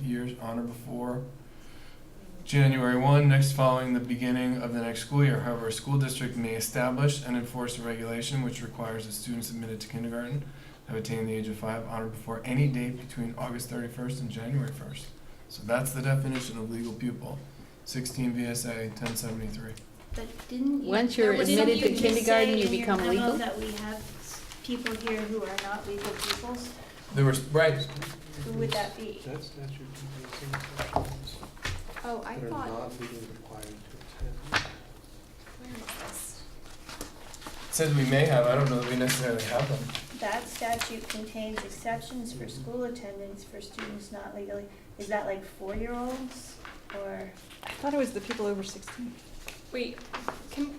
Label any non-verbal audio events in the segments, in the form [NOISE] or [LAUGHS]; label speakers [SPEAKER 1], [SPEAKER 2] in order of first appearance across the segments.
[SPEAKER 1] years on or before January 1, next following the beginning of the next school year. However, a school district may establish and enforce a regulation which requires that students admitted to kindergarten have attained the age of five on or before any date between August 31st and January 1st. So that's the definition of legal pupil, 16 VSA 1073.
[SPEAKER 2] But didn't you?
[SPEAKER 3] Once you're
[SPEAKER 2] that was
[SPEAKER 3] admitted
[SPEAKER 2] something
[SPEAKER 3] to
[SPEAKER 2] you
[SPEAKER 3] kindergarten,
[SPEAKER 2] said
[SPEAKER 3] you
[SPEAKER 2] in your
[SPEAKER 3] become
[SPEAKER 2] memo
[SPEAKER 3] legal?
[SPEAKER 2] That we have s- people here who are not legal pupils,
[SPEAKER 1] There was, right,
[SPEAKER 2] who would that be?
[SPEAKER 4] That statute contains some sections
[SPEAKER 5] Oh, I
[SPEAKER 4] that are
[SPEAKER 5] thought.
[SPEAKER 4] not legally required to attend.
[SPEAKER 5] where is this?
[SPEAKER 1] says we may have, I don't know that we necessarily have them.
[SPEAKER 2] That statute contains exceptions for school attendance for students not legally, is that like four-year-olds or?
[SPEAKER 6] I thought it was the people over sixteen.
[SPEAKER 5] Wait, can,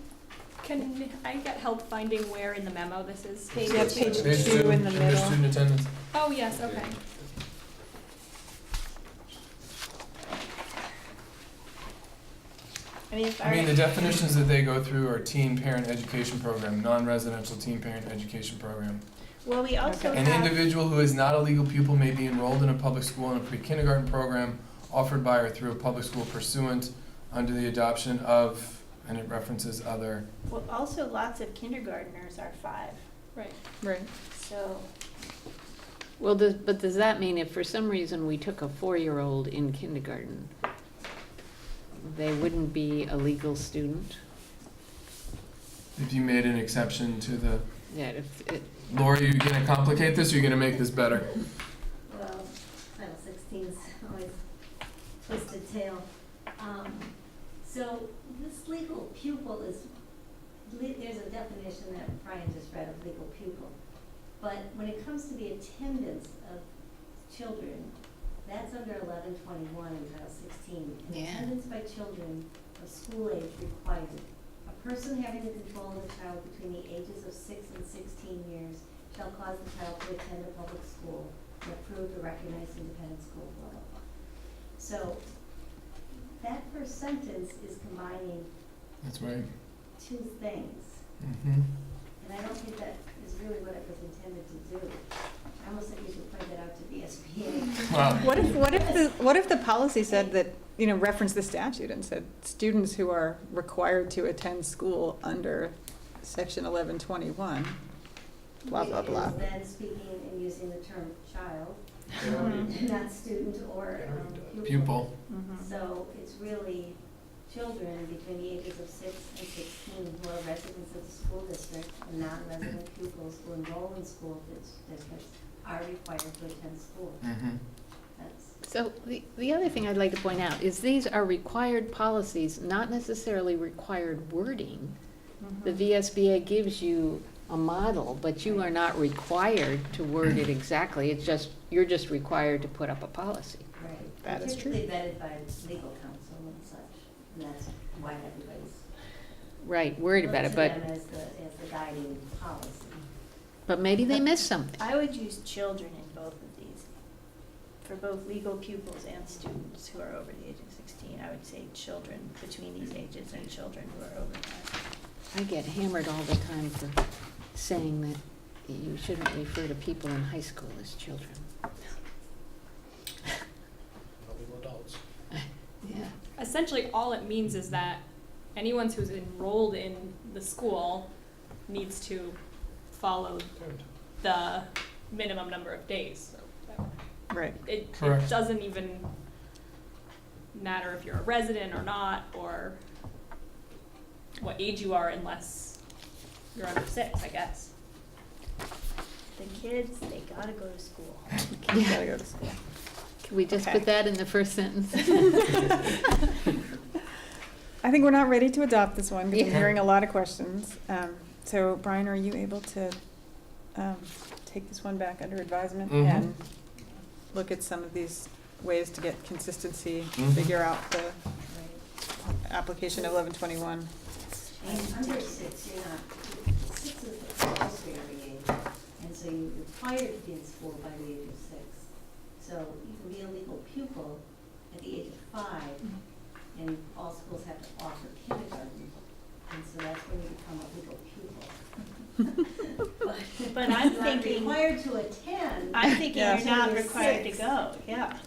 [SPEAKER 5] can I get help finding where in the memo this is?
[SPEAKER 6] Page Yeah, two. page
[SPEAKER 1] Page
[SPEAKER 6] two in the
[SPEAKER 1] under
[SPEAKER 6] middle.
[SPEAKER 1] student attendance.
[SPEAKER 5] Oh, yes, okay.
[SPEAKER 2] I mean, if
[SPEAKER 1] I
[SPEAKER 2] our,
[SPEAKER 1] mean, the definitions that they go through are teen parent education program, non-residential teen parent education program.
[SPEAKER 2] well, we also
[SPEAKER 1] An
[SPEAKER 2] have,
[SPEAKER 1] individual who is not a legal pupil may be enrolled in a public school in a pre-kindergarten program offered by or through a public school pursuant under the adoption of, and it references other.
[SPEAKER 2] well, also lots of kindergarteners are five,
[SPEAKER 5] Right.
[SPEAKER 6] Right.
[SPEAKER 2] so,
[SPEAKER 3] Well, does, but does that mean if for some reason we took a four-year-old in kindergarten, they wouldn't be a legal student?
[SPEAKER 1] If you made an exception to the,
[SPEAKER 3] That if, it,
[SPEAKER 1] Laura, are you gonna complicate this, or are you gonna make this better?
[SPEAKER 7] Well, Title sixteen's always twisted tail. Um, so this legal pupil is, le- there's a definition that Brian just read of legal pupil. But when it comes to the attendance of children, that's under eleven twenty-one in Title sixteen. And
[SPEAKER 3] Yeah.
[SPEAKER 7] Attendance by children of school age required. A person having the control of a child between the ages of six and sixteen years shall cause the child to attend a public school and approved or recognized independent school, blah, blah, blah. So that first sentence is combining
[SPEAKER 1] That's right.
[SPEAKER 7] two things,
[SPEAKER 1] Mm-hmm.
[SPEAKER 7] and I don't think that is really what it was intended to do. I almost think we should point that out to VSBA.
[SPEAKER 1] Wow.
[SPEAKER 6] What if, what if, the what if the policy said that, you know, referenced the statute and said, students who are required to attend school under section eleven twenty-one, blah, blah, blah.
[SPEAKER 7] It is then speaking and using the term child,
[SPEAKER 4] It
[SPEAKER 2] [LAUGHS]
[SPEAKER 4] already-
[SPEAKER 7] [LAUGHS] not student or
[SPEAKER 4] It already
[SPEAKER 7] um,
[SPEAKER 4] does.
[SPEAKER 1] Pupil.
[SPEAKER 6] Mm-hmm.
[SPEAKER 7] So it's really children between the ages of six and sixteen who are residents of the school district and non-resident pupils who enroll in school dis- districts are required to attend school.
[SPEAKER 1] Mm-hmm.
[SPEAKER 7] That's,
[SPEAKER 3] so the, the other thing I'd like to point out is these are required policies, not necessarily required wording. The VSBA gives you a model, but you are not required to word [CLEARS THROAT] it exactly, it's just, you're just required to put up a policy.
[SPEAKER 7] right.
[SPEAKER 6] That is true.
[SPEAKER 7] Typically vetted by legal counsel and such, and that's why everybody's
[SPEAKER 3] Right, worried about it,
[SPEAKER 7] Look to
[SPEAKER 3] but,
[SPEAKER 7] them as the, as the guiding policy.
[SPEAKER 3] but maybe they missed something.
[SPEAKER 2] I would use children in both of these. For both legal pupils and students who are over the age of sixteen, I would say children between these ages and children who are over that.
[SPEAKER 3] I get hammered all the time for saying that you shouldn't refer to people in high school as children.
[SPEAKER 4] Probably adults.
[SPEAKER 3] Yeah.
[SPEAKER 5] Essentially, all it means is that anyone who's enrolled in the school needs to follow the minimum number of days. So [LAUGHS]
[SPEAKER 6] Right.
[SPEAKER 5] It,
[SPEAKER 1] Correct.
[SPEAKER 5] it doesn't even matter if you're a resident or not, or what age you are unless you're under six, I guess.
[SPEAKER 2] The kids, they gotta go to school.
[SPEAKER 6] You gotta go to school.
[SPEAKER 3] Can we just
[SPEAKER 6] Okay.
[SPEAKER 3] put that in the first sentence?
[SPEAKER 6] I think we're not ready to adopt this one, because I'm
[SPEAKER 3] Yeah.
[SPEAKER 6] hearing a lot of questions. Um, so Brian, are you able to, um, take this one back under advisement
[SPEAKER 1] Mhm.
[SPEAKER 6] and look at some of these ways to get consistency,
[SPEAKER 1] Mhm.
[SPEAKER 6] figure out the
[SPEAKER 7] Right.
[SPEAKER 6] application of eleven twenty-one?
[SPEAKER 7] And under six, you're not, six is the compulsory age, and so you're required to be in school by the age of six. So you can be a legal pupil at the age of five, and all schools have to offer kindergarten, and so that's when you become a legal pupil.
[SPEAKER 2] But I'm
[SPEAKER 7] You're not
[SPEAKER 2] thinking, [LAUGHS]
[SPEAKER 7] required to attend.
[SPEAKER 2] I'm thinking
[SPEAKER 6] Yeah.
[SPEAKER 2] you're not
[SPEAKER 7] Until you're
[SPEAKER 2] required to
[SPEAKER 7] six.
[SPEAKER 2] go, yeah.